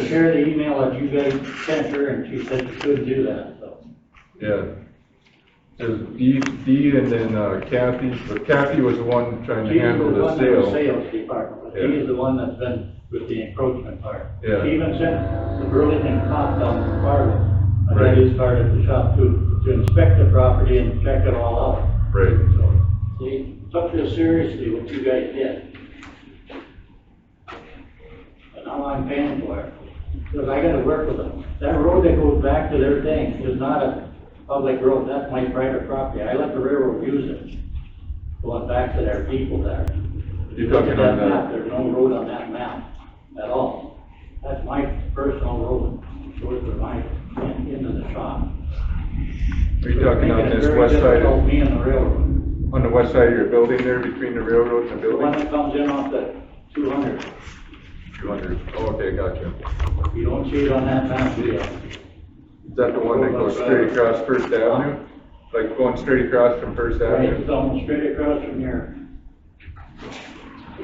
share the email that you guys sent her, and she said you couldn't do that, so. Yeah. It was Dee, Dee and then uh, Kathy, but Kathy was the one trying to She's handle the the one in the sale. sales department, but Yeah. she's the one that's been with the encroachment part. Yeah. She even sent the Burlington cop down to Fargo, but Right. that is part of the shop too, to inspect the property and check it all out. Right. So, They took this seriously, what you guys did. And now I'm paying for it, because I gotta work with them. That road that goes back to their thing is not a public road, that's my private property, I let the railroad use it. Going back to their people there. You're talking Look at on the- map, There's no road on that map at all. That's my personal road, goes to my, into the shop. Are you talking on Making it this very west side, difficult, of- Me and the railroad. on the west side of your building there, between the railroad and the The one building? that comes in off the two hundred, Two hundred. Oh, okay, gotcha. you don't see it on that map, do you? Is that the one that goes straight across First Avenue? Like going straight across from First Right, Avenue? it's almost straight across from here.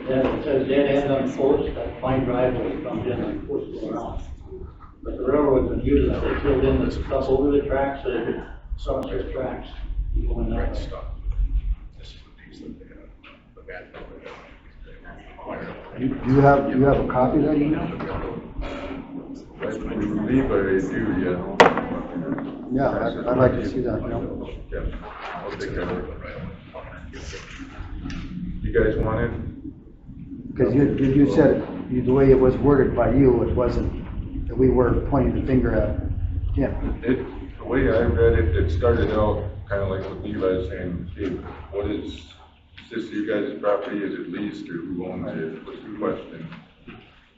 That, it says dead end on post, that fine driveway comes in on post going out. But the railroad's been using it, they filled in the stuff over the tracks, the Somerset tracks, going that Right way. stuff. This is the piece that they have, the bad part of it. You you have, you have a copy of that email? I believe I do, yeah. Yeah, I'd I'd like to see that, you know? Yeah, I'll take that. You guys want it? Because you, you you said, you- the way it was worded by you, it wasn't, that we were pointing the finger at him. It, the way I read it, it started out kind of like what Levi's saying, hey, what is, is this you guys' property, is it leased, or who owns it, was the question.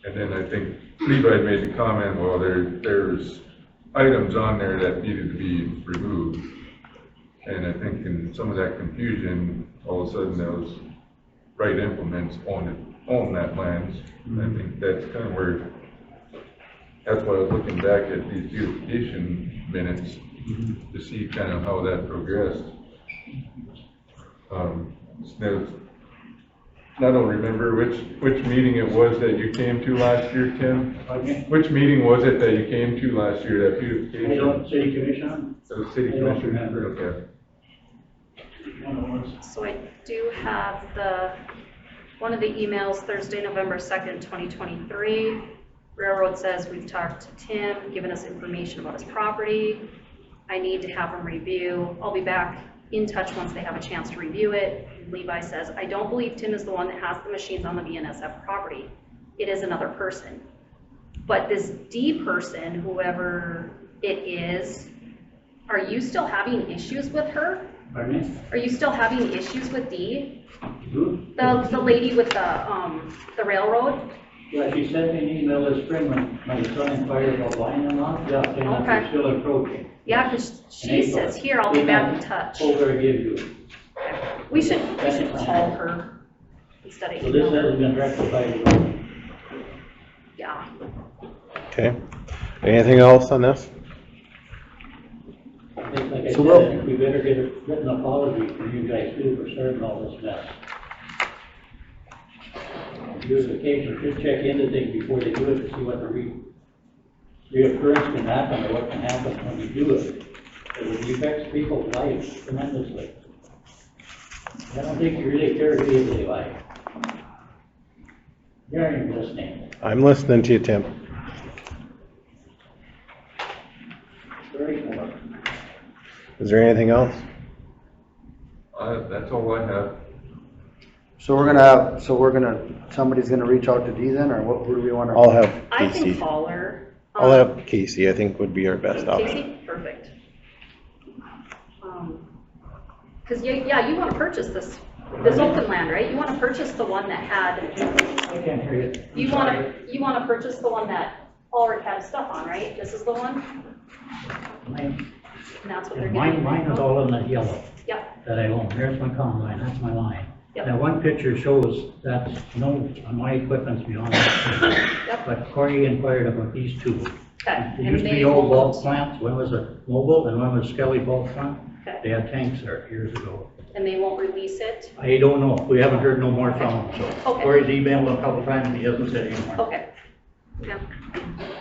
And then I think Levi made the comment, well, there, there's items on there that needed to be removed. And I think in some of that confusion, all of a sudden those right implements owned, it- owned that land. And I think that's kind of where that's why I was looking back at these beautification minutes to see kind of how that progressed. Um, it's no- I don't remember which, which meeting it was that you came to last year, Tim? Okay. Which meeting was it that you came to last year, that They don't, beautification? city commission, The city I don't commission? remember. Okay. one of the ones. So I do have the, one of the emails, Thursday, November 2nd, 2023. Railroad says, "We've talked to Tim, given us information about his property. I need to have him review. I'll be back in touch once they have a chance to review it." Levi says, "I don't believe Tim is the one that has the machines on the BNSF property. It is another person." But this D person, whoever it is, are you still having issues with her? pardon Are you still having issues with Dee? me? Who? The, the lady with the, um, the railroad? Yeah, she sent me an email this spring when my son inquired about buying them off, yeah, saying that Okay. they're still approaching. Yeah, cause In she April. says, here, I'll be back in touch. Over I give you. We should, we should call her instead of So this email. hasn't been rectified. Yeah. Okay. Anything else on this? I think, Like I So we'll- said, I think we better get a written apology from you guys too for starting all this mess. Beautification should check into things before they do it to see what the re, reoccurrence can happen or what can happen when you do it. It affects people's lives tremendously. I don't think you really care who you live by. You're even listening. I'm listening to you, Tim. Very important. Is there anything else? Uh, that's all I have. So we're gonna have, so we're gonna, somebody's gonna reach out to Dee then, or what, who do we wanna? I'll have I can Casey. call her. I'll Um, have Casey, I think would be our best option. Casey, perfect. Um, Cause yeah, yeah, you wanna purchase this, this open land, right? You wanna purchase the one that had, I can't hear you. you wanna, you wanna purchase the one that Ulrich had stuff on, right? This is the one? Mine, And that's what they're getting. mine mine is from? all in that yellow. Yep. that I own. Here's my common line, that's my line. Yep. Now, one picture shows that no, uh, my equipment's beyond that. Yep. But Corey inquired about these two. Okay. There used to be old bulk plants, one was a mobile and one was Skelly bulk plant. Okay. They had tanks there years ago. And they won't release it? I don't know, we haven't heard no more from them, so. Okay. Corey's emailed a couple times, he hasn't said anymore. Okay. Yeah.